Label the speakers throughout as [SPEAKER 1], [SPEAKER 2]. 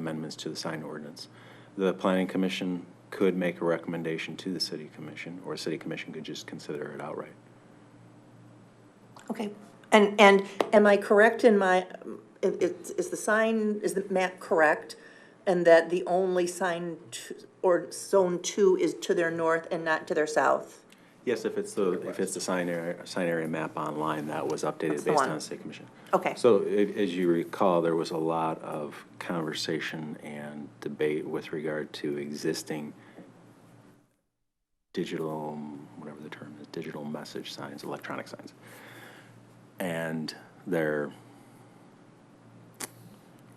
[SPEAKER 1] amendments to the sign ordinance. The planning commission could make a recommendation to the city commission, or city commission could just consider it outright.
[SPEAKER 2] Okay, and, and am I correct in my, it- it's is the sign, is the map correct? And that the only sign to, or zone two is to their north and not to their south?
[SPEAKER 1] Yes, if it's the, if it's the sign area, sign area map online, that was
[SPEAKER 2] That's
[SPEAKER 1] updated
[SPEAKER 2] the
[SPEAKER 1] based
[SPEAKER 2] one.
[SPEAKER 1] on the state commission.
[SPEAKER 2] Okay.
[SPEAKER 1] So a- as you recall, there was a lot of conversation and debate with regard to existing digital, whatever the term is, digital message signs, electronic signs. And they're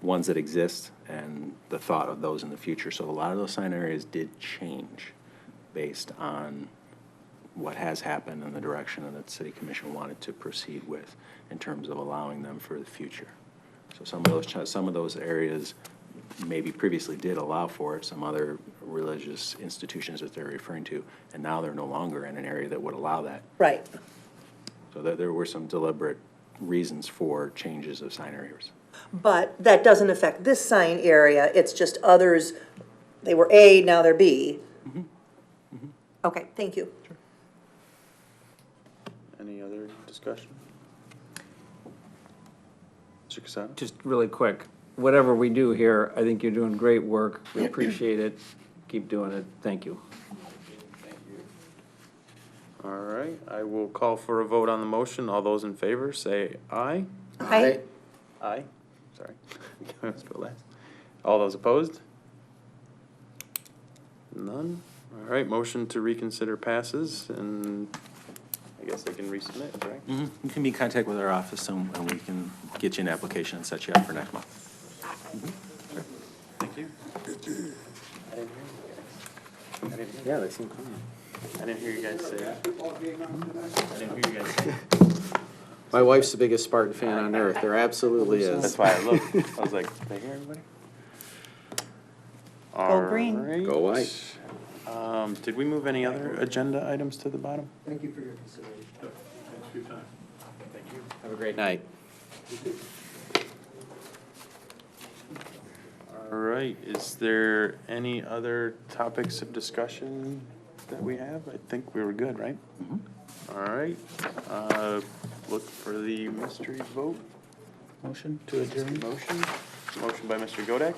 [SPEAKER 1] ones that exist and the thought of those in the future. So a lot of those sign areas did change based on what has happened and the direction that the city commission wanted to proceed with in terms of allowing them for the future. So some of those, chi- some of those areas maybe previously did allow for it, some other religious institutions that they're referring to, and now they're no longer in an area that would allow that.
[SPEAKER 2] Right.
[SPEAKER 1] So there, there were some deliberate reasons for changes of sign areas.
[SPEAKER 2] But that doesn't affect this sign area, it's just others, they were A, now they're B. Okay, thank you.
[SPEAKER 3] Any other discussion? Mr. Casada?
[SPEAKER 4] Just really quick, whatever we do here, I think you're doing great work. We appreciate it. Keep doing it. Thank you.
[SPEAKER 3] All right, I will call for a vote on the motion. All those in favor, say aye.
[SPEAKER 2] Hi.
[SPEAKER 3] Aye. Sorry. Let's go last. All those opposed? None? All right, motion to reconsider passes, and I guess I can resubmit, right?
[SPEAKER 1] Mm-hmm. You can be in contact with our office and, and we can get you an application and set you up for next month.
[SPEAKER 3] Thank you. I didn't hear you guys. I didn't hear-
[SPEAKER 4] Yeah, they seem calm.
[SPEAKER 3] I didn't hear you guys say. I didn't hear you guys say.
[SPEAKER 5] My wife's the biggest Spartan fan on earth. There absolutely
[SPEAKER 3] That's
[SPEAKER 5] is.
[SPEAKER 3] why I looked. I was like, did I hear everybody? All
[SPEAKER 2] Go green.
[SPEAKER 5] Go
[SPEAKER 3] right.
[SPEAKER 5] white.
[SPEAKER 3] Um, did we move any other agenda items to the bottom?
[SPEAKER 5] Have a great night.
[SPEAKER 3] All right, is there any other topics of discussion that we have? I think we were good, right? All right, uh, look for the mystery vote. Motion to adjourn. Motion, motion by Mr. Godek.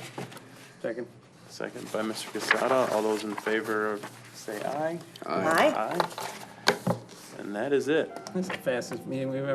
[SPEAKER 3] Second. Second by Mr. Casada. All those in favor of, say aye.
[SPEAKER 2] Hi.
[SPEAKER 3] Aye. And that is it.
[SPEAKER 4] This is the fastest meeting we've ever.